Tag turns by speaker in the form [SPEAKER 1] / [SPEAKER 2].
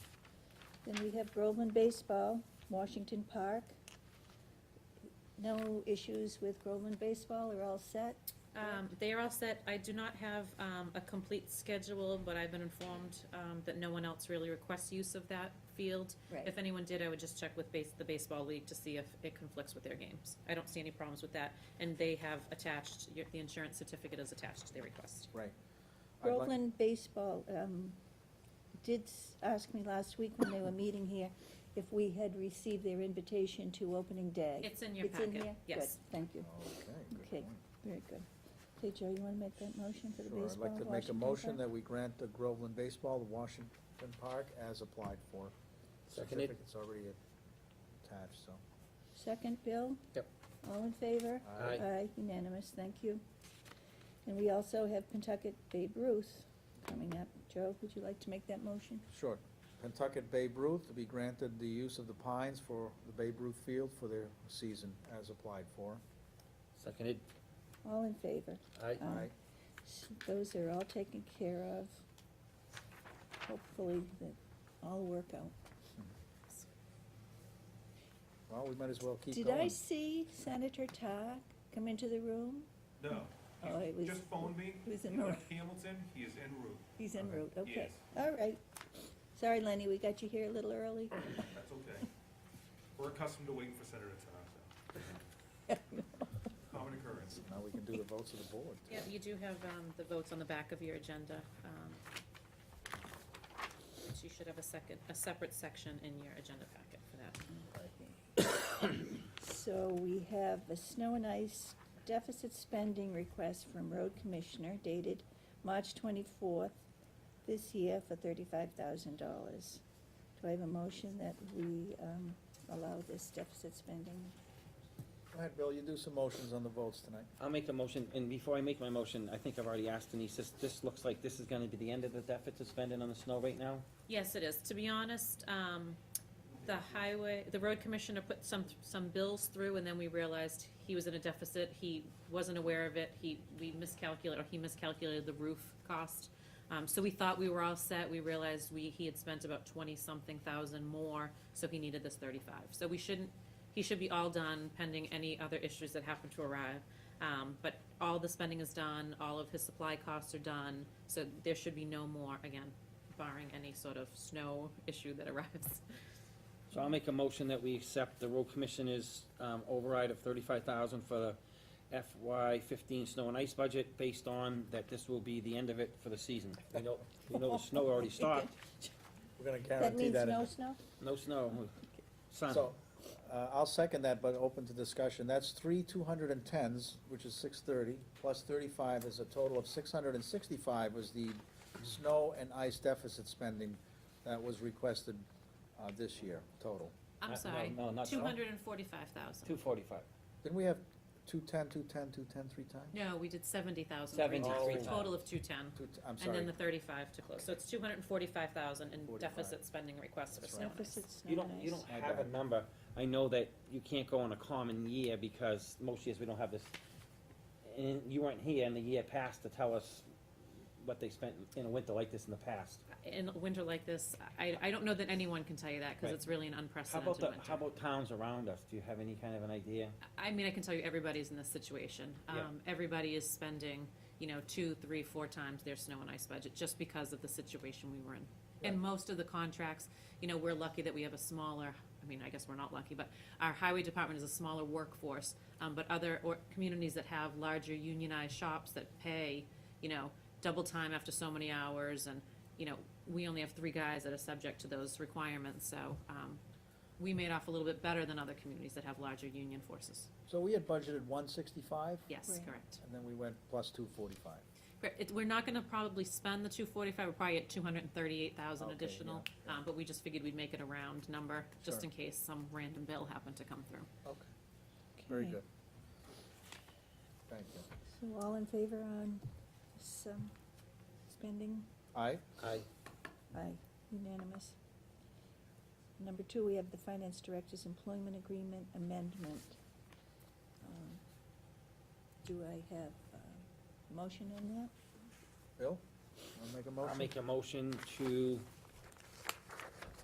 [SPEAKER 1] Then we have Groveland Baseball, Washington Park. No issues with Groveland Baseball, are all set?
[SPEAKER 2] Um, they are all set. I do not have, um, a complete schedule, but I've been informed, um, that no one else really requests use of that field. If anyone did, I would just check with base, the baseball league to see if it conflicts with their games. I don't see any problems with that, and they have attached, your- the insurance certificate is attached to their request.
[SPEAKER 3] Right. I'd like-
[SPEAKER 1] Groveland Baseball, um, did s- ask me last week when they were meeting here if we had received their invitation to opening day.
[SPEAKER 2] It's in your
[SPEAKER 1] It's in
[SPEAKER 2] packet,
[SPEAKER 1] here?
[SPEAKER 2] yes.
[SPEAKER 1] Good, thank you,
[SPEAKER 3] Okay, good
[SPEAKER 1] Okay.
[SPEAKER 3] point.
[SPEAKER 1] very good. Okay, Joe, you wanna make that motion for the
[SPEAKER 3] Sure, I'd
[SPEAKER 1] baseball?
[SPEAKER 3] like to make a
[SPEAKER 1] Washington
[SPEAKER 3] motion
[SPEAKER 1] Park?
[SPEAKER 3] that we grant the Groveland Baseball, the Washington Park, as applied for.
[SPEAKER 4] Seconded.
[SPEAKER 3] Certificate's already attached, so.
[SPEAKER 1] Second, Bill?
[SPEAKER 4] Yep.
[SPEAKER 1] All in favor?
[SPEAKER 4] Aye.
[SPEAKER 1] Aye, unanimous, thank you. And we also have Pentucket Babe Ruth coming up. Joe, would you like to make that motion?
[SPEAKER 3] Sure. Pentucket Babe Ruth to be granted the use of the pines for the Babe Ruth Field for their season, as applied for.
[SPEAKER 4] Seconded.
[SPEAKER 1] All in favor?
[SPEAKER 4] Aye.
[SPEAKER 1] Aye.
[SPEAKER 3] Aye.
[SPEAKER 1] S- Those are all taken care of. Hopefully, that all work out.
[SPEAKER 3] Well, we might as well keep
[SPEAKER 1] Did
[SPEAKER 3] going.
[SPEAKER 1] I see Senator Todd come into the room?
[SPEAKER 5] No.
[SPEAKER 1] Oh, it was-
[SPEAKER 5] He just phoned me.
[SPEAKER 1] it was in
[SPEAKER 5] He
[SPEAKER 1] route.
[SPEAKER 5] left Hamilton, he is en route.
[SPEAKER 1] He's en
[SPEAKER 3] Okay.
[SPEAKER 1] route, okay.
[SPEAKER 5] Yes.
[SPEAKER 1] All right. Sorry, Lenny, we got you here a little early.
[SPEAKER 5] That's okay. We're accustomed to waiting for Senator Tom, so. Common occurrence.
[SPEAKER 3] Now we can do the votes of the board.
[SPEAKER 2] Yeah, you do have, um, the votes on the back of your agenda. um, which You should have a second, a separate section in your agenda packet for that.
[SPEAKER 1] So we have a snow and ice deficit spending request from road commissioner dated March twenty-fourth this year for thirty-five thousand dollars. Do I have a motion that we, um, allow this deficit spending?
[SPEAKER 3] Go ahead, Bill, you do some motions on the votes tonight.
[SPEAKER 4] I'll make the motion, and before I make my motion, I think I've already asked Denise, this, this looks like this is gonna be the end of the deficit spending on the snow right now?
[SPEAKER 2] Yes, it is. To be honest, um, the highway, the road commissioner put some, some bills through, and then we realized he was in a deficit. He wasn't aware of it. He, we miscalculated, or he miscalculated the roof cost. Um, so we thought we were all set. We realized we, he had spent about twenty-something thousand more, so he needed this thirty-five. So we shouldn't, he should be all done pending any other issues that happen to arrive. Um, but all the spending is done, all of his supply costs are done, so there should be no more, again, barring any sort of snow issue that arrives.
[SPEAKER 4] So I'll make a motion that we accept the road commissioner's, um, override of thirty-five thousand for the FY fifteen snow and ice budget, based on that this will be the end of it for the season. We know, we know the snow already stopped,
[SPEAKER 3] We're gonna
[SPEAKER 1] That
[SPEAKER 3] guarantee
[SPEAKER 1] means
[SPEAKER 3] that. in
[SPEAKER 1] no
[SPEAKER 3] the-
[SPEAKER 1] snow?
[SPEAKER 4] no snow, sun.
[SPEAKER 3] So, uh, I'll second that, but open to discussion. That's three two hundred and tens, which is six thirty, plus thirty-five is a total of six hundred and sixty-five was the snow and ice deficit spending that was requested, uh, this year, total.
[SPEAKER 4] Uh,
[SPEAKER 2] I'm sorry,
[SPEAKER 4] no, no, not at
[SPEAKER 2] two
[SPEAKER 4] all.
[SPEAKER 2] hundred and forty-five thousand.
[SPEAKER 4] Two forty-five.
[SPEAKER 3] Didn't we have two-ten, two-ten, two-ten, three times?
[SPEAKER 2] No, we did seventy thousand.
[SPEAKER 4] 70,000.
[SPEAKER 2] Total of two-ten,
[SPEAKER 3] Two, t- I'm
[SPEAKER 2] and then
[SPEAKER 3] sorry,
[SPEAKER 2] the thirty-five to close, so it's two hundred and forty-five thousand in
[SPEAKER 3] 45.
[SPEAKER 2] deficit spending requests for
[SPEAKER 3] That's
[SPEAKER 2] snow
[SPEAKER 3] right.
[SPEAKER 2] and ice.
[SPEAKER 1] Deficit snow
[SPEAKER 4] You don't,
[SPEAKER 1] and
[SPEAKER 4] you
[SPEAKER 1] ice.
[SPEAKER 4] don't have a number, I know that you can't go on a common year because most years we don't have this, and you weren't here in the year past to tell us what they spent in a winter like this in the past.
[SPEAKER 2] In a winter like this, I, I don't know that anyone can tell you that, because
[SPEAKER 4] Right.
[SPEAKER 2] it's really an
[SPEAKER 4] How about
[SPEAKER 2] unprecedented
[SPEAKER 4] the,
[SPEAKER 2] winter.
[SPEAKER 4] how about towns around us, do you have any kind of an idea?
[SPEAKER 2] I mean, I can tell you everybody's in this situation.
[SPEAKER 4] Yeah.
[SPEAKER 2] Um, everybody is spending, you know, two, three, four times their snow and ice budget just because of the situation we were in. And most of the contracts, you know, we're lucky that we have a smaller, I mean, I guess we're not lucky, but our highway department is a smaller workforce. Um, but other, or communities that have larger unionized shops that pay, you know, double time after so many hours and, you know, we only have three guys that are subject to those requirements, so, um, we made off a little bit better than other communities that have larger union forces.
[SPEAKER 3] so we had budgeted one sixty-five,
[SPEAKER 2] Yes,
[SPEAKER 1] Right.
[SPEAKER 2] correct.
[SPEAKER 3] and then we went plus two forty-five.
[SPEAKER 2] Correct. It, we're not gonna probably spend the two forty-five, we're probably at two hundred and thirty-eight thousand
[SPEAKER 3] Okay,
[SPEAKER 2] additional,
[SPEAKER 3] yeah, yeah.
[SPEAKER 2] um, but we just figured we'd make it a round number, just
[SPEAKER 3] Sure.
[SPEAKER 2] in case some random bill happened to come through.
[SPEAKER 3] Okay, very
[SPEAKER 1] Okay.
[SPEAKER 3] good. Thank you.
[SPEAKER 1] So all in favor on some spending?
[SPEAKER 3] Aye?
[SPEAKER 4] I,
[SPEAKER 1] Aye, unanimous. Number two, we have the finance director's employment agreement amendment. Um, Do I have a motion on that?
[SPEAKER 3] Bill, wanna make a motion?
[SPEAKER 4] I'll make a motion to